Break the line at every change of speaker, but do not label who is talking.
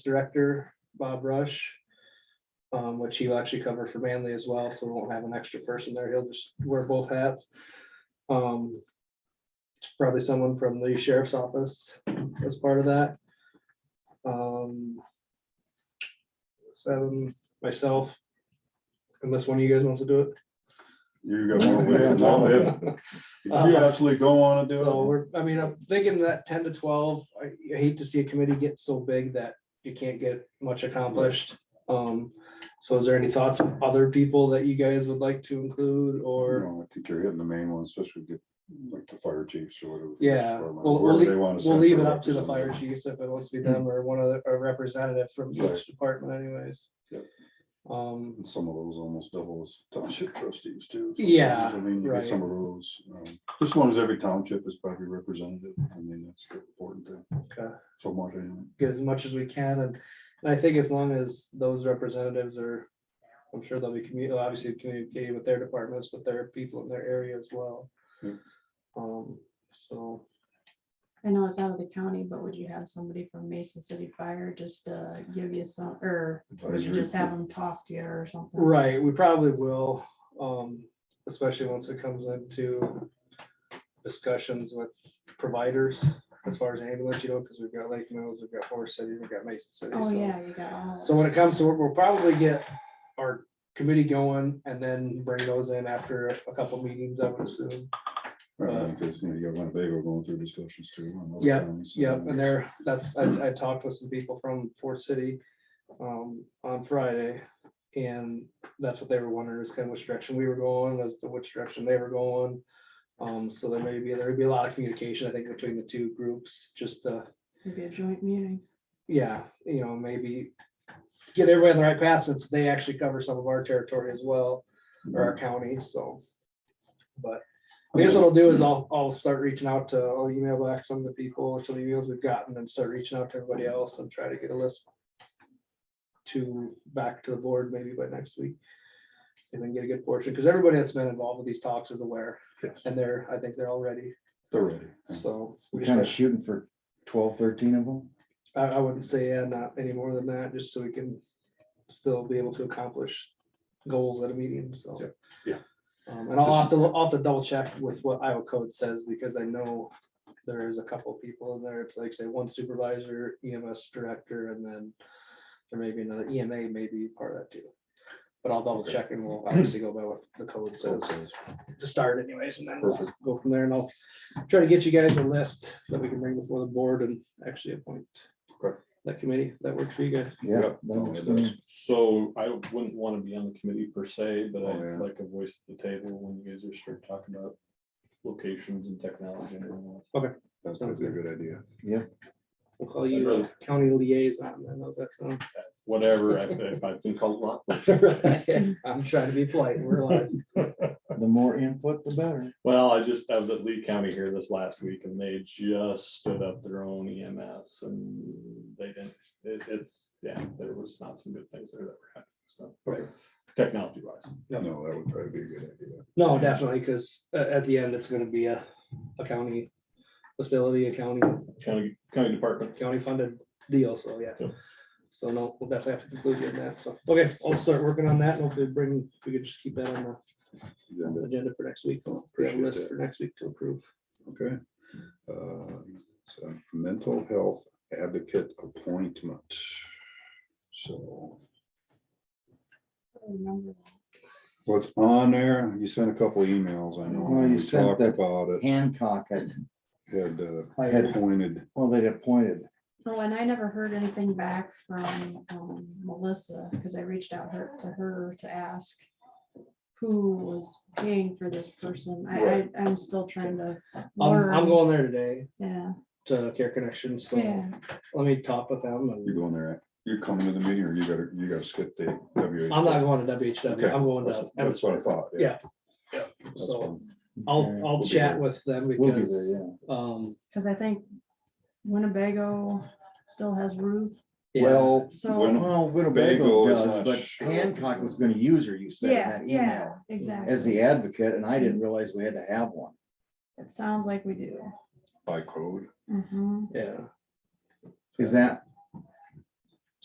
Director Bob Rush. um, which he'll actually cover for Manley as well, so we won't have an extra person there. He'll just wear both hats. Um, Probably someone from the sheriff's office as part of that. Um, Seven, myself. Unless one of you guys wants to do it.
You got one way, and no, if, if you absolutely don't wanna
Uh-huh. So
do it,
we're, I mean, I'm thinking that ten to twelve, I I hate to see a committee get so big that you can't get much accomplished. Um, so is there any thoughts of other people that you guys would like to include
you
or,
know, I think you're hitting the main one, especially get like the fire chiefs or whatever.
yeah, we'll, we'll,
Wherever they
lea-
wanna
we'll
send
leave
their
it up to the fire
representative.
chiefs if it wants to be them or one other, a representative from
Right.
each department anyways.
Yep.
Um,
And some of those almost double as township trustees too. so
Yeah,
I mean, you
right.
get some of those, um, this one is every township is probably representative, I mean, that's the important thing,
okay.
so much, anyway.
get as much as we can, and, and I think as long as those representatives are, I'm sure they'll be commu, obviously communicating with their departments, but their people in their area as well.
Hmm.
Um, so,
I know it's out of the county, but would you have somebody from Mason City Fire just to give you some, or would you
Advisory
just have them talk to you or something?
right, we probably will, um, especially once it comes into discussions with providers as far as ambulance, you know, because we've got Lake Mills, we've got Forest City, we've got Mason City.
Oh,
so-
yeah, you got all. that.
So when it comes to, we'll probably get our committee going and then bring those in after a couple meetings, I would assume. Uh,
Right, Because, you know, you got Winnebago going through discussions too. on other
Yeah,
counties, so
Yeah, and there, that's, I, I talked with some people from Fort City um, on Friday. And that's what they were wondering is kind of which direction we were going, as to which direction they were going. Um, so there may be, there would be a lot of communication, I think, between the two groups, just, uh,
Maybe a joint meeting.
yeah, you know, maybe get everybody on the right path since they actually cover some of our territory as well. or our county, so. But I guess what I'll do is I'll, I'll start reaching out to, I'll email back some of the people, some of the emails we've gotten and start reaching out to everybody else and try to get a list. To, back to the board maybe by next week. See if we can get a good portion, because everybody that's been involved with these talks is aware
Yes,
and they're, I think they're all ready,
They're ready.
so. we
We're kind of
just-
shooting for 12, 13 of them.
I, I wouldn't say, yeah, not any more than that, just so we can still be able to accomplish goals at a meeting, so.
Yep, yeah.
Um, and I'll have to, I'll have to double check with what Iowa code says, because I know there is a couple of people in there, it's like, say, one supervisor, EMS director, and then there may be another EMA may be part of that too. But I'll double check and we'll obviously go by what the code says to start anyways, and then we'll go from there, and I'll try to get you guys a list that we can bring before the board and actually appoint
Okay.
that committee, that works for you guys.
Yeah.
Yep.
that works for
Mm.
me.
So I wouldn't want to be on the committee per se, but
Oh, yeah.
I'd like a voice at the table when you guys are start talking about locations and technology. and all
That's a good idea.
We'll call
I'd
you
rather-
county liaison, I know that's, um,
that. Whatever, I- if I've been called a lot.
I'm trying to be polite, we're live.
The more input, the better.
Well, I just, I was at Lee County here this last week and they just stood up their own EMS and they didn't, it, it's, yeah, there was not some good things there that were happening, so.
Okay.
Technology wise.
No, that would probably be a good idea.
No, definitely, because at, the end, it's gonna be a, a county facility, a county,
County, county department.
county funded deal, so yeah.
Yep.
So no, we'll definitely have to conclude you in that, so, okay, I'll start working on that, and hopefully bring, we could just keep that on the
Agenda,
agenda for next week, for that
Appreciate
list
that.
for next week to approve.
Okay. Uh, So mental health advocate appointment. So
I don't remember that.
what's on there? You sent a couple emails, I know.
Well, you
We
sent
talked
that-
about it,
Hancock had,
had uh,
had,
appointed.
well, they'd appointed.
Oh, and I never heard anything back from um, Melissa, because I reached out her, to her to ask who was paying for this person. I, I,
Right.
I'm still trying to
I'm, I'm
learn.
going there today
Yeah,
to Care Connections, so
yeah.
let me talk with them.
You're
and-
going there, you're coming to the meeting or you gotta, you gotta skip the W.
I'm not going to WHW, I'm going to.
That's what I thought.
Yeah,
That's
So
fine.
I'll,
Yeah,
I'll
be
chat
there.
with them
We'll be
because,
there,
um,
Because I think Winnebago still has Ruth.
yeah,
Well.
So-
yeah.
when-
Well,
Bagel
Winnebago
is
does,
not
but
sure.
Hancock was gonna use her, you said in that email,
Exactly.
as the advocate, and I didn't realize we had to have one.
It sounds like we do.
By code.
Mhm.
yeah.
Is that